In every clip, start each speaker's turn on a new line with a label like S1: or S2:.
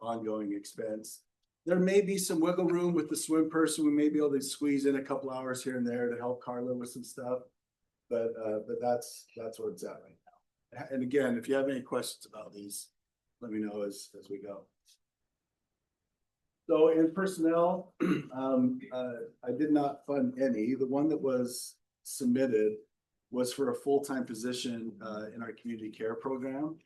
S1: ongoing expense. There may be some wiggle room with the swim person. We may be able to squeeze in a couple hours here and there to help Carla with some stuff. But uh, but that's, that's where it's at right now. And again, if you have any questions about these, let me know as, as we go. So in personnel, um, uh, I did not fund any. The one that was submitted was for a full-time position, uh, in our community care program.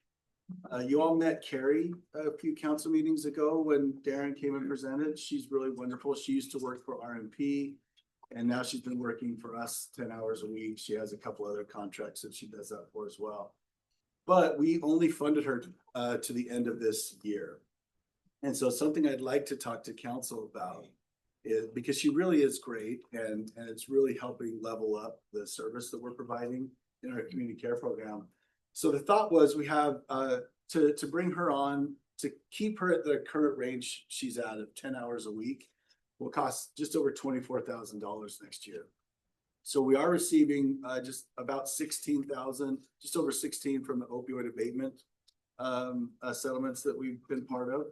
S1: Uh, you all met Carrie a few council meetings ago when Darren came and presented. She's really wonderful. She used to work for RMP. And now she's been working for us ten hours a week. She has a couple other contracts that she does that for as well. But we only funded her, uh, to the end of this year. And so something I'd like to talk to council about is, because she really is great and, and it's really helping level up the service that we're providing in our community care program. So the thought was we have, uh, to, to bring her on, to keep her at the current range she's at of ten hours a week will cost just over twenty-four thousand dollars next year. So we are receiving, uh, just about sixteen thousand, just over sixteen from the opioid abatement um, uh, settlements that we've been part of.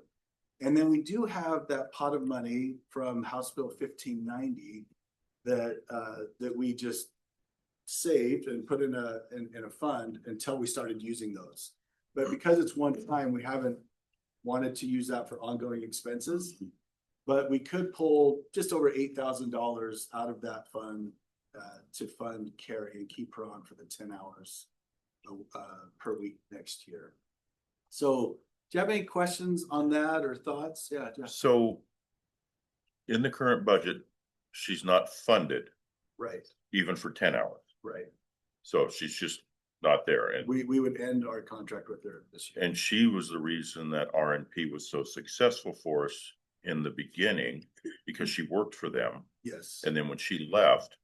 S1: And then we do have that pot of money from House Bill fifteen ninety that, uh, that we just saved and put in a, in, in a fund until we started using those. But because it's one time, we haven't wanted to use that for ongoing expenses. But we could pull just over eight thousand dollars out of that fund, uh, to fund Carrie and keep her on for the ten hours uh, per week next year. So do you have any questions on that or thoughts? Yeah, just,
S2: So in the current budget, she's not funded
S1: right,
S2: even for ten hours.
S1: right.
S2: So she's just not there. And,
S1: We, we would end our contract with her this year.
S2: and she was the reason that RNP was so successful for us in the beginning because she worked for them.
S1: Yes.
S2: And then when she left,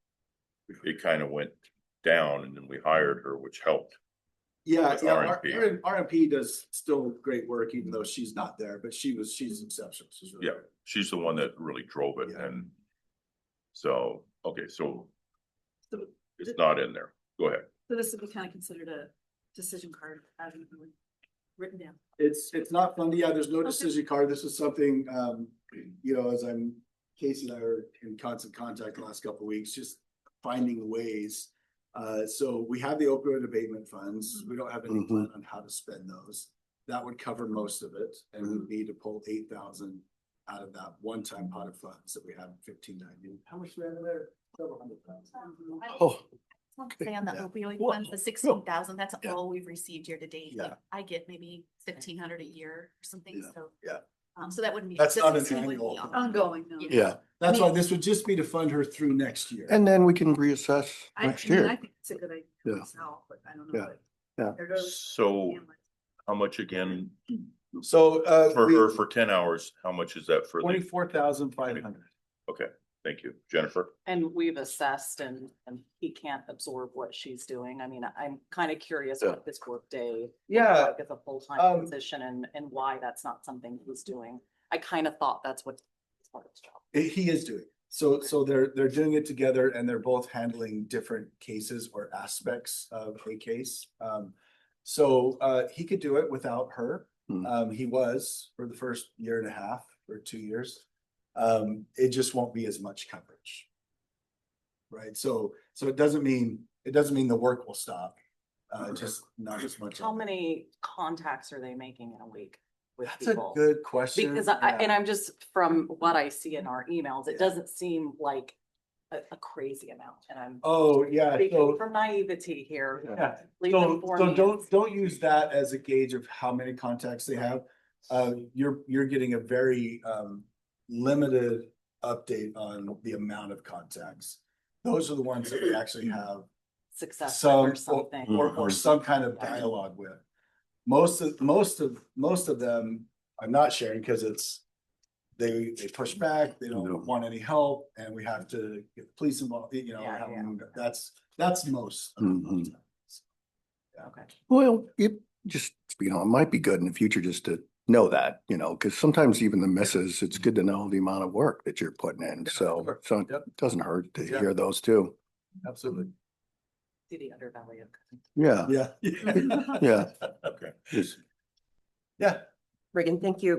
S2: it kind of went down and then we hired her, which helped.
S1: Yeah,
S2: with
S1: yeah, R-
S2: RMP.
S1: R- RMP does still great work, even though she's not there, but she was, she's exceptional. She's really
S2: Yeah.
S1: good.
S2: She's the one that really drove it
S1: Yeah.
S2: and so, okay, so
S3: So-
S2: it's not in there. Go ahead.
S3: So this would be kind of considered a decision card, having been written down.
S1: It's, it's not fun. Yeah, there's no
S3: Okay.
S1: decision card. This is something, um, you know, as I'm, Casey and I are in constant contact the last couple of weeks, just finding ways. Uh, so we have the opioid abatement funds. We don't have any plan on how to spend those. That would cover most of it and we'd need to pull eight thousand out of that one-time pot of funds that we have in fifteen ninety. How much we have in there? Several hundred thousand.
S4: Oh,
S5: I'll Say on the
S1: Yeah.
S5: opioid
S4: Whoa.
S5: ones, the sixteen thousand, that's
S1: Yeah.
S5: all we've received year to date.
S1: Yeah.
S5: Like, I get maybe fifteen hundred a year or something,
S1: Yeah.
S5: so.
S1: Yeah.
S5: Um, so that wouldn't be.
S1: That's
S5: this
S1: not an
S5: is completely
S1: annual.
S3: Ongoing, no.
S5: Yeah.
S4: yeah.
S1: That's
S5: I
S1: why
S5: mean-
S1: this would just be to fund her through next year.
S4: And then we can reassess
S3: I, I
S4: next
S3: mean, I
S4: year.
S3: think it's a good idea
S4: Yeah.
S3: myself, but I don't know.
S4: Yeah.
S3: what-
S4: Yeah.
S3: There goes.
S2: So how much again
S1: So, uh.
S2: For her, for ten hours, how much is that for? the-
S1: Twenty-four thousand five hundred.
S2: Thank you, Jennifer.
S6: And we've assessed and, and he can't absorb what she's doing. I mean, I'm kind of curious
S4: Yeah.
S6: what this workday.
S1: Uh,
S7: Yeah,
S6: Like as a
S7: um,
S6: full-time position and, and why that's not something he's doing. I kind of thought that's what his part of his job.
S1: He is doing, it. so, so they're, they're doing it together and they're both handling different cases or aspects of a case. Um, so, uh, he could do it without her.
S4: Hmm.
S1: Um, he was for the first year and a half or two years. Um, it just won't be as much coverage. Right, so, so it doesn't mean, it doesn't mean the work will stop, uh, just not as much.
S6: How
S1: of it.
S6: many contacts are they making in a week with
S1: That's a
S6: people?
S1: good question.
S6: Because I,
S1: yeah.
S6: and I'm just, from what I see in our emails,
S1: Yeah.
S6: it doesn't seem like a, a crazy amount and I'm
S1: Oh, yeah,
S6: speaking
S1: so,
S6: from naivety here.
S1: yeah,
S6: Please
S1: so,
S6: inform
S1: so
S6: me.
S1: don't, don't use that as a gauge of how many contacts they have. Uh, you're, you're getting a very, um, limited update on the amount of contacts. Those are the ones that we actually have
S6: Success
S1: some,
S6: or
S1: or,
S6: something.
S1: or- or some kind of dialogue with. Most of, most of, most of them, I'm not sharing because it's, they, they push back, they
S4: No.
S1: don't want any help, and we have to get the police involved, you know,
S6: Yeah,
S1: have
S6: yeah.
S1: them- that's, that's most. of the
S4: Mhm.
S1: contacts.
S6: Okay.
S4: Well, it just, you know, it might be good in the future just to know that, you know, because sometimes even the misses, it's good to know the amount of work that you're putting in.
S1: Yeah,
S4: So,
S1: sure.
S4: so it
S1: Yep.
S4: doesn't hurt to
S1: Yeah.
S4: hear those too.
S1: Absolutely.
S6: See the underbelly of.
S4: Yeah,
S1: Yeah.
S4: yeah.
S2: Okay.
S4: Just-
S1: Yeah.
S7: Reagan, thank you.